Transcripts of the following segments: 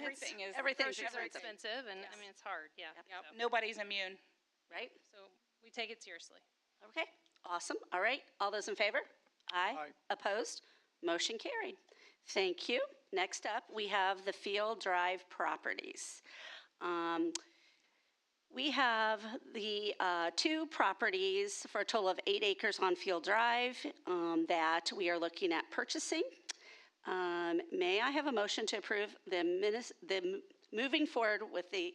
Everything is, Everything's groceries are expensive, expensive and, I Yes. mean, it's hard, yeah. Yep, so- nobody's immune. right? So we take it seriously. Okay, awesome. All right, all those in favor? Aye. Opposed? Motion carried. Thank you. Next up, we have the Field Drive Properties. Um, We have the uh, two properties for a total of eight acres on Field Drive um, that we are looking at purchasing. Um, May I have a motion to approve the minis, the, m- moving forward with the,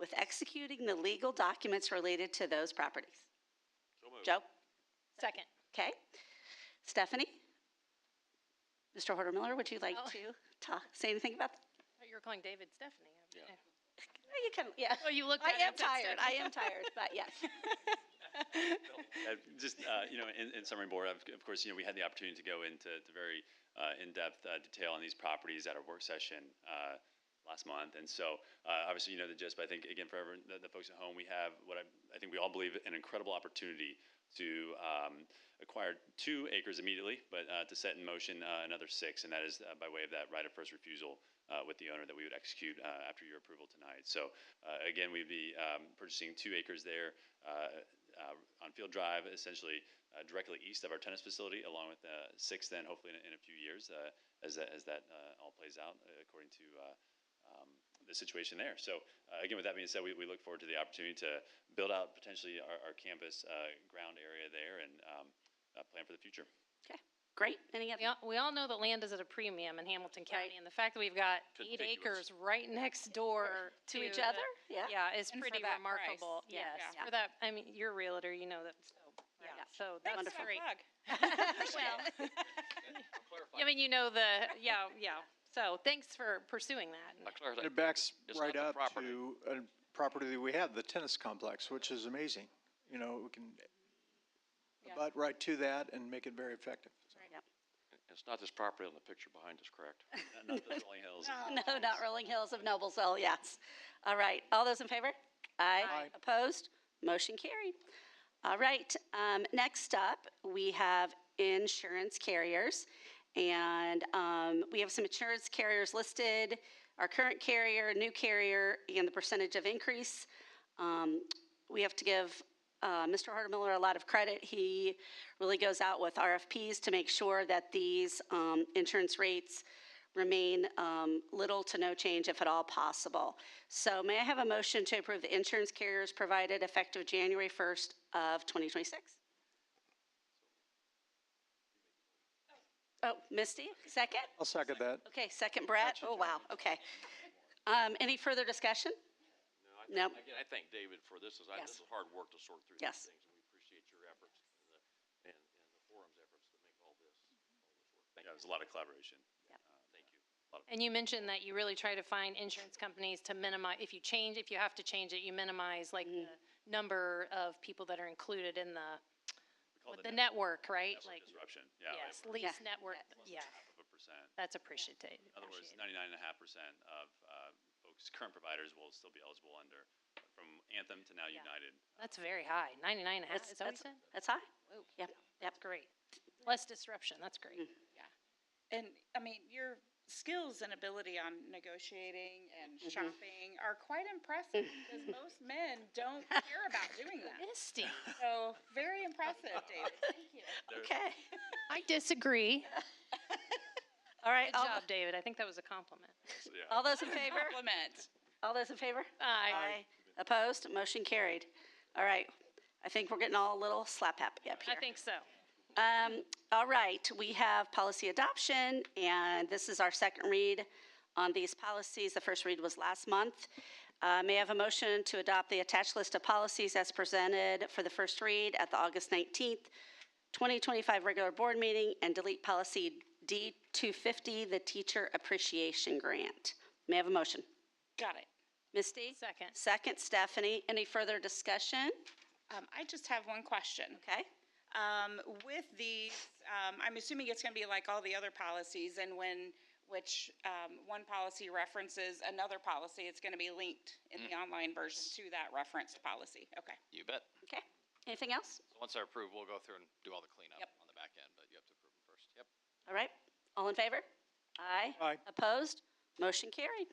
with executing the legal documents related to those properties? Joe? Second. Okay. Stephanie? Mr. Horder Miller, would you like to talk, say anything about? that? You were calling David Stephanie. Yeah. You can, yeah. Oh, you looked I at am it. tired. I am tired, but yes. Uh, Just, uh, you know, in, in summary board, of of course, you know, we had the opportunity to go into to very uh, in-depth uh, detail on these properties at our work session uh, last month. And so, uh, obviously, you know, the gist, but I think, again, for everyone, the, the folks at home, we have what I, I think we all believe an incredible opportunity to um, acquire two acres immediately, but uh, to set in motion uh, another six, and that is uh, by way of that right of first refusal uh, with the owner that we would execute uh, after your approval tonight. So, uh, again, we'd be um, purchasing two acres there uh, uh, on Field Drive, essentially uh, directly east of our tennis facility, along with uh, six. Then, hopefully, in, a- in a few years, uh, as that as that uh, all plays out uh, according to. Uh, um, the situation there. So uh, again, with that being said, we, we look forward to the opportunity to build out potentially our, our campus uh, ground area there and um, uh, plan for the future. Okay, great. Any We other? all, we all know that land is at a premium in Hamilton County, Right. and the fact that we've got eight acres Contiguous. right next door to. each the- other? Yeah. Yeah, is And for pretty that price. remarkable, Yeah. yes. Yeah. For that, I mean, you're a realtor, you know that, so, Yeah. yeah, so Thanks that's for the great. plug. Well, I mean, you know the, yeah, yeah, so thanks for pursuing that. It backs It's right not the up property. to a property that we have, the tennis complex, which is amazing. You know, we can butt right to that and make it very effective. It's not this property on the picture behind us, correct? Not- Not the Rolling Hills. No, not Rolling Hills of Noblesville, yes. All right, all those in favor? Aye. Aye. Opposed? Motion carried. All right, um, next up, we have insurance carriers. And, um, we have some insurance carriers listed, our current carrier, new carrier, and the percentage of increase. Um, we have to give uh, Mr. Hardmiller a lot of credit. He really goes out with RFPs to make sure that these um, insurance rates remain um, little to no change if at all possible. So may I have a motion to approve the insurance carriers provided effective January 1st of 2026? Oh, Misty, second? I'll second that. Okay, second Brett? Oh, wow, okay. Um, Any further discussion? No. Again, I thank David for this, is, I- Yes. this is hard work to sort through these Yes. things, and we appreciate your efforts and the, and, and the forum's efforts to make all this, all this work. Thank Yeah, you, there's a lot of collaboration. thank you. And you mentioned that you really try to find insurance companies to minimize, if you change, if you have to change it, you minimize like Mm-hmm. the number of people that are included in the, We call with the it Oh, the network, right? Like, disruption. Yeah, like yes, lease Yeah. network, yeah, half of a percent. that's appreciated. In other words, appreciated. ninety-nine and a half percent of uh, folks, current providers will still be eligible under, from Anthem to now Yeah. United. That's very high, ninety-nine and a half, That's- is that what you that's- said? That's high? Yep, yep. That's great. Less disruption, that's great. Mm-hmm. And, I mean, your skills and ability on negotiating and shopping are quite impressive because most men don't care about doing that. Misty, So, very impressive, David. Thank you. Okay. I disagree. All right, Good all, job, David, I think that was a compliment. So, yeah. all those in favor? Compliment. All those in favor? Aye. Opposed? Motion carried. All right. I think we're getting all a little slap happy up I here. think so. Um, all right, we have policy adoption, and this is our second read on these policies. The first read was last month. Uh, may I have a motion to adopt the attached list of policies as presented for the first read at the August 19th, 2025 regular board meeting and delete policy D250, the teacher appreciation grant? May I have a motion? Got it. Misty? Second. Second, Stephanie. Any further discussion? Um, I just have one question. Okay. Um, with these, um, I'm assuming it's gonna be like all the other policies and when, which, um, one policy references another policy, it's gonna be linked in the online version to that referenced policy. Okay. You bet. Okay. Anything else? So once they're approved, we'll go through and do all the cleanup Yep. on the back end, but you have to approve them first. Yep. All right, all in favor? Aye. Aye. Opposed? Motion carried.